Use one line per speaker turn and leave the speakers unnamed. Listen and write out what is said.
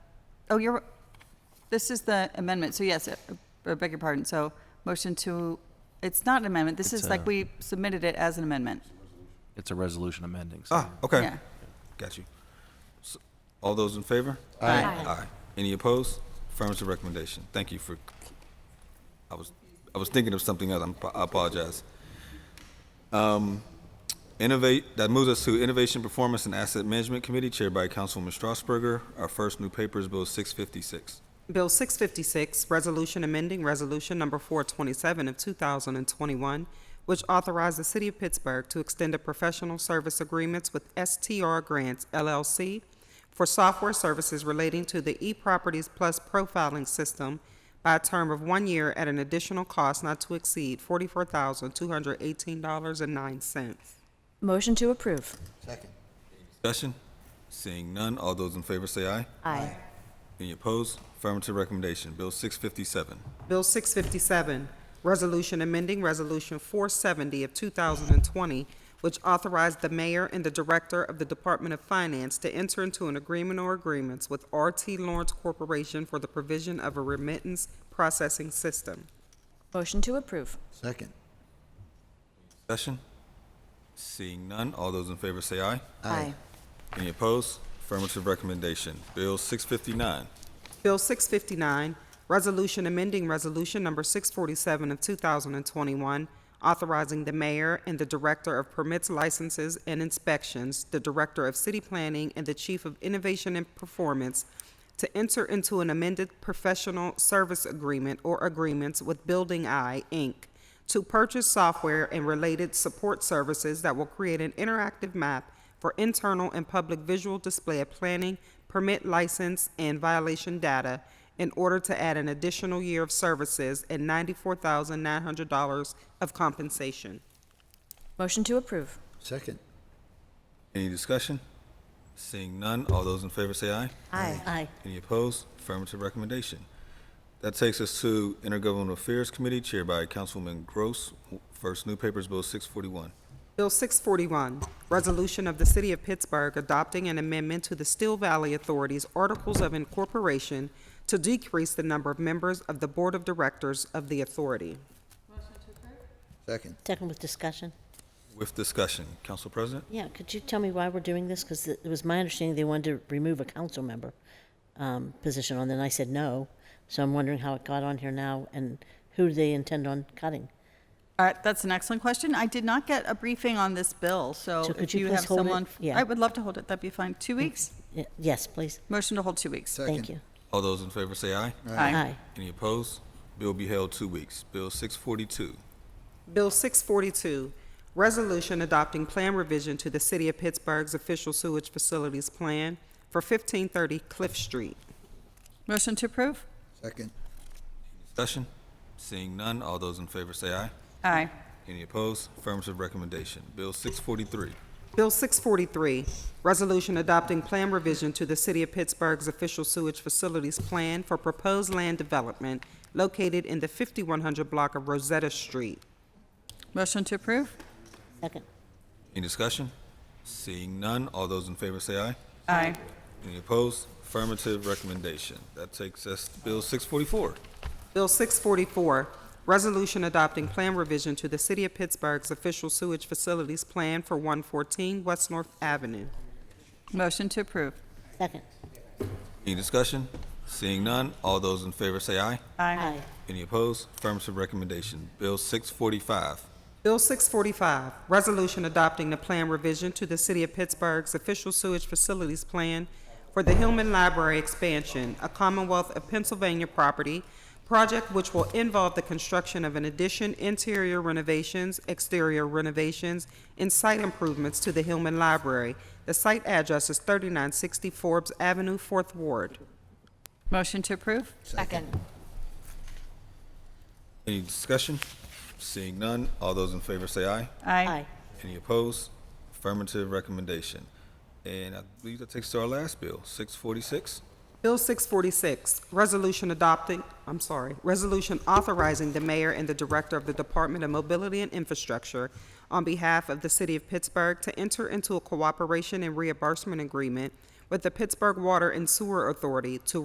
oh, you're, this is the amendment, so yes, uh, I beg your pardon, so motion to, it's not an amendment, this
It's
is like
a-
we submitted it as an amendment.
It's a resolution amending. so-
Ah, okay,
Yeah.
got you. S- All those in favor?
Aye.
Aye. Any opposed? Affirmative recommendation. Thank you for, I was, I was thinking of something else. I'm- I apologize. Um, Innovate, that moves us to Innovation, Performance, and Asset Management Committee chaired by Councilwoman Strasburger. Our first new paper is Bill 656.
Bill 656, Resolution Amending Resolution Number 427 of 2021, which authorized the City of Pittsburgh to extend a professional service agreements with STR Grants LLC for software services relating to the eProperties Plus profiling system by a term of one year at an additional cost not to exceed $44,218.09.
Motion to approve.
Discussion? Seeing none, all those in favor say aye.
Aye.
Any opposed? Affirmative recommendation. Bill 657.
Bill 657, Resolution Amending Resolution 470 of 2020, which authorized the mayor and the director of the Department of Finance to enter into an agreement or agreements with RT Lawrence Corporation for the provision of a remittance processing system.
Motion to approve.
Second.
Discussion? Seeing none, all those in favor say aye.
Aye.
Any opposed? Affirmative recommendation. Bill 659.
Bill 659, Resolution Amending Resolution Number 647 of 2021, authorizing the mayor and the director of permits, licenses, and inspections, the director of city planning, and the chief of innovation and performance to enter into an amended professional service agreement or agreements with Building Eye, Inc., to purchase software and related support services that will create an interactive map for internal and public visual display of planning, permit license, and violation data in order to add an additional year of services and $94,900 of compensation.
Motion to approve.
Second.
Any discussion? Seeing none, all those in favor say aye.
Aye. Aye.
Any opposed? Affirmative recommendation. That takes us to Intergovernmental Affairs Committee chaired by Councilwoman Gross. First new paper is Bill 641.
Bill 641, Resolution of the City of Pittsburgh adopting an amendment to the Steel Valley Authority's Articles of Incorporation to decrease the number of members of the Board of Directors of the authority.
Second.
Second with discussion.
With discussion, Council President?
Yeah, could you tell me why we're doing this? Because it was my understanding they wanted to remove a council member um, position on, then I said no. So I'm wondering how it got on here now and who they intend on cutting.
All right, that's an excellent question. I did not get a briefing on this bill, so
So could
if
you
you
please
have
hold it?
someone,
Yeah.
I would love to hold it, that'd be fine. Two weeks?
Y- Yes, please.
Motion to hold two weeks.
Thank you.
All those in favor say aye.
Aye.
Any opposed? Bill will be held two weeks. Bill 642.
Bill 642, Resolution Adopting Plan Revision to the City of Pittsburgh's Official Sewage Facilities Plan for 1530 Cliff Street.
Motion to approve?
Second.
Discussion? Seeing none, all those in favor say aye.
Aye.
Any opposed? Affirmative recommendation. Bill 643.
Bill 643, Resolution Adopting Plan Revision to the City of Pittsburgh's Official Sewage Facilities Plan for Proposed Land Development located in the 5100 block of Rosetta Street.
Motion to approve?
Second.
Any discussion? Seeing none, all those in favor say aye.
Aye.
Any opposed? Affirmative recommendation. That takes us to Bill 644.
Bill 644, Resolution Adopting Plan Revision to the City of Pittsburgh's Official Sewage Facilities Plan for 114 West North Avenue.
Motion to approve?
Second.
Any discussion? Seeing none, all those in favor say aye.
Aye.
Aye.
Any opposed? Affirmative recommendation. Bill 645.
Bill 645, Resolution Adopting the Plan Revision to the City of Pittsburgh's Official Sewage Facilities Plan for the Hillman Library Expansion, a Commonwealth of Pennsylvania property, project which will involve the construction of an addition, interior renovations, exterior renovations, and site improvements to the Hillman Library. The site address is 3960 Forbes Avenue, 4th Ward.
Motion to approve?
Second.
Any discussion? Seeing none, all those in favor say aye.
Aye.
Any opposed? Affirmative recommendation. And I believe that takes us to our last bill, 646.
Bill 646, resolution adopting, I'm sorry, resolution authorizing the mayor and the director of the Department of Mobility and Infrastructure on behalf of the city of Pittsburgh to enter into a cooperation and reimbursement agreement with the Pittsburgh Water and Sewer Authority to